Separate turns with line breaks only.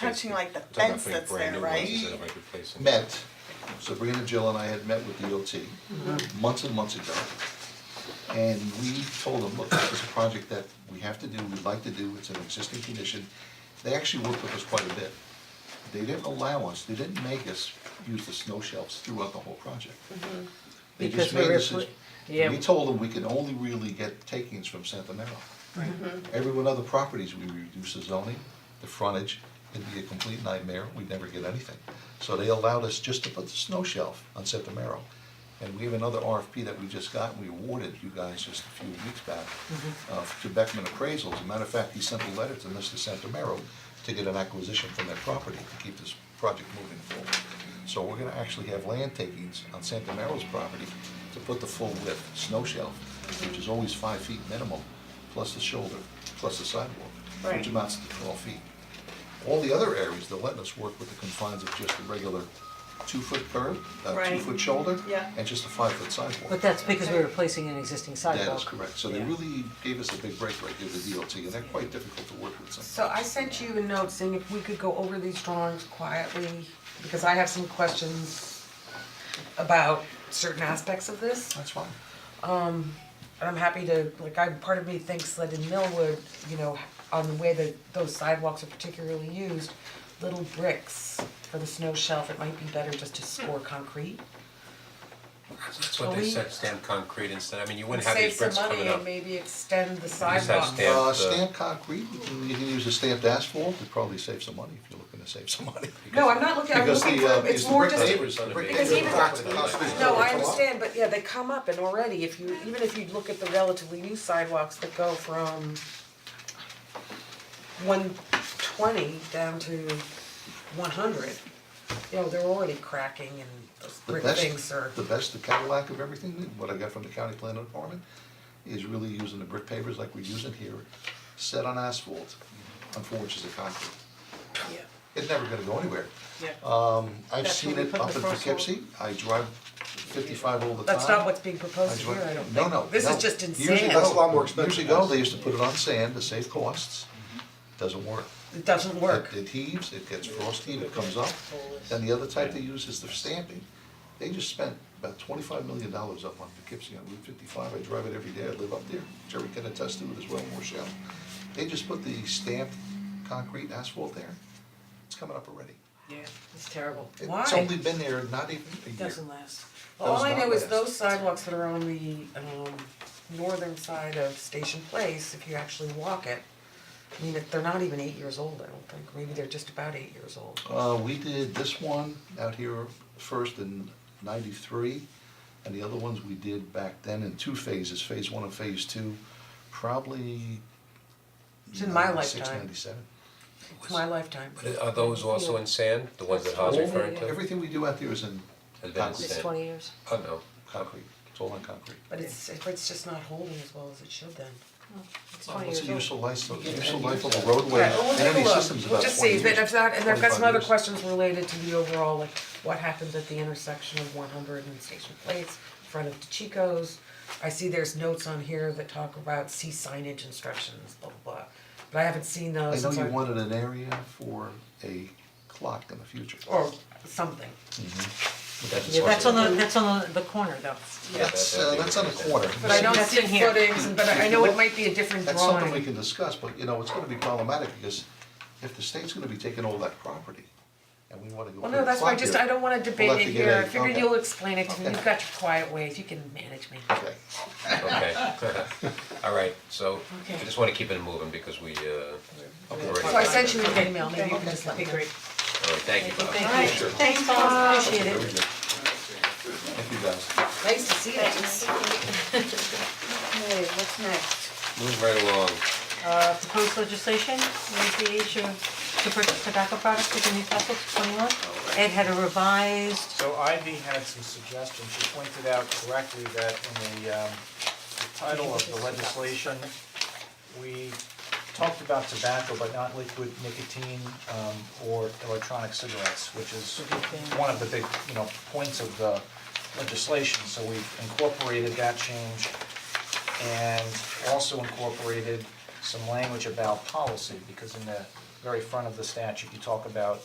touching like the
I'm talking about
fence
putting
that's there,
brand new ones
right?
instead of like replacing.
met, Sabrina, Jill and I had met with DOT months and months ago. And we told them, look, this is a project that we have to do, we'd like to do, it's an existing condition. They actually worked with us quite a bit. They didn't allow us, they didn't make us use the snow shelves throughout the whole project. They just
Mm-hmm. Because we
made
were
us,
put- yeah.
we told them we can only really get takings from Santa Mara. Every one of the properties, we reduce the zoning, the frontage, it'd be a complete nightmare, we'd never get anything. So they allowed us just to put the snow shelf on Septimero. And we have another RFP that we just got, we awarded you guys just a few weeks back, uh, to Beckman Appraisals. As a matter of fact, he sent a letter to Mr. Septimero to get an acquisition from that property to keep this project moving forward. So we're gonna actually have land takings on Septimero's property to put the full width snow shelf, which is always five feet minimum, plus the shoulder, plus the sidewalk,
Right.
which amounts to twelve feet. All the other areas, they're letting us work with the confines of just a regular two-foot curb, uh,
Right.
two-foot shoulder,
Yeah.
and just a five-foot sidewalk.
But that's because we're replacing an existing sidewalk.
That is correct, so they
Yeah.
really gave us a big break right there, the DOT, and they're quite difficult to work with sometimes.
So I sent you a note saying if we could go over these drawings quietly, because I have some questions about certain aspects of this. Um,
That's fine.
And I'm happy to, like, I, part of me thinks that in Millwood, you know, on the way that those sidewalks are particularly used, little bricks for the snow shelf, it might be better just to score concrete.
That's what they
Well, we-
said, stamped concrete instead, I mean, you wouldn't have these
Save
bricks
some money
coming up.
and maybe extend the
have
sidewalk.
stamp-
Uh,
the-
stamped concrete, you can- you can use a stamped asphalt, it'd probably save some money if you're looking to save some money.
No, I'm not looking, I'm
Because
looking
the, uh,
for, it's
the
more
brick
just.
Neighbors on the
brick
because
neighborhood.
even- No, I understand, but yeah, they come up and already, if you, even if you look at the relatively new sidewalks that go from one twenty down to one hundred, you know, they're already cracking and those
The
brick things
best,
are,
the best, the Cadillac of everything, what I got from the county planning department, is really using the brick pavers like we're using here, set on asphalt, on four inches of concrete. It's never gonna go anywhere. Um, I've
That's
seen
where we
it
put
up
the
in
first one.
Poughkeepsie, I drive fifty-five all the time.
that's not what's being proposed
I
here,
drive-
I don't think.
No, no,
This
no.
is just insane.
Years ago-
That's a lot more expensive.
Years ago, they used to put it on sand to save costs,
Mm-hmm.
doesn't work.
It doesn't work.
It it heaves, it gets frosty, it comes up, and the other type they use is the stamping. They just spent about twenty-five million dollars up on Poughkeepsie on Route fifty-five, I drive it every day, I live up there, Jerry can attest to it as well, Rochelle. They just put the stamped concrete asphalt there, it's coming up already.
Yeah, it's terrible.
It-
Why?
It's only been there not even a year.
Doesn't last.
All
Does
I
not
know is
last.
those sidewalks that are on the um northern side of Station Place, if you actually walk it, I mean, they're not even eight years old, I don't think, maybe they're just about eight years old.
Uh, we did this one out here first in ninety-three, and the other ones we did back then in two phases, phase one and phase two, probably
It's in my
96,
lifetime.
97.
It's my lifetime.
But are those also in sand, the ones that Haas
All-
Oh, referring to?
Everything we do out there is in
Advanced
concrete,
It's
Yeah.
twenty years.
Oh, no.
concrete, it's all on concrete.
But it's if it's just not holding as well as it should then.
It's
Well,
twenty
What's
years
the
old.
useful life, useful life of a roadway,
Alright, well, we'll
and
take a
any
look.
system's
We'll
about
just
twenty
see,
years,
but if not, and I've got
25
some other
years.
questions related to the overall, like what happens at the intersection of one hundred and Station Place, in front of DeChico's. I see there's notes on here that talk about see signage instructions, blah blah blah, but I haven't seen
I
those
know
since
you
I've-
wanted an area for a clock in the future.
or something.
That's
Yeah, that's
also-
on the, that's on the, the corner though.
That's, uh, that's on the corner.
But I don't
That's
see
in here.
footings, but I I know it might be a different
That's something we
drawing.
can discuss, but you know, it's gonna be problematic because if the state's gonna be taking all that property and we wanna go
Well,
put
no,
a
that's why I
clock
just,
here,
I don't wanna debate
have
it
to get
here,
a-
I figured
okay.
you've explained it to me,
Okay.
you've got your quiet ways, you can manage me.
Okay,
Okay, alright, so I
Okay.
just wanna keep it moving because we uh we're already.
So I sent you an email, maybe you can just let me know.
Alright, thank you, Bob.
Alright, thanks, Bob, appreciate it.
thank you guys.
Nice to see you.
Okay, what's next?
Move right along,
Uh, proposed legislation, raise the age of, to purchase tobacco products within Newcastle to twenty-one. Ed had a revised,
So Ivy had some suggestions, she pointed out correctly that in the um the title of the legislation, we talked about tobacco, but not liquid nicotine um or electronic cigarettes, which is one of the big, you know, points of the legislation, so we've incorporated that change and also incorporated some language about policy, because in the very front of the statute, you talk about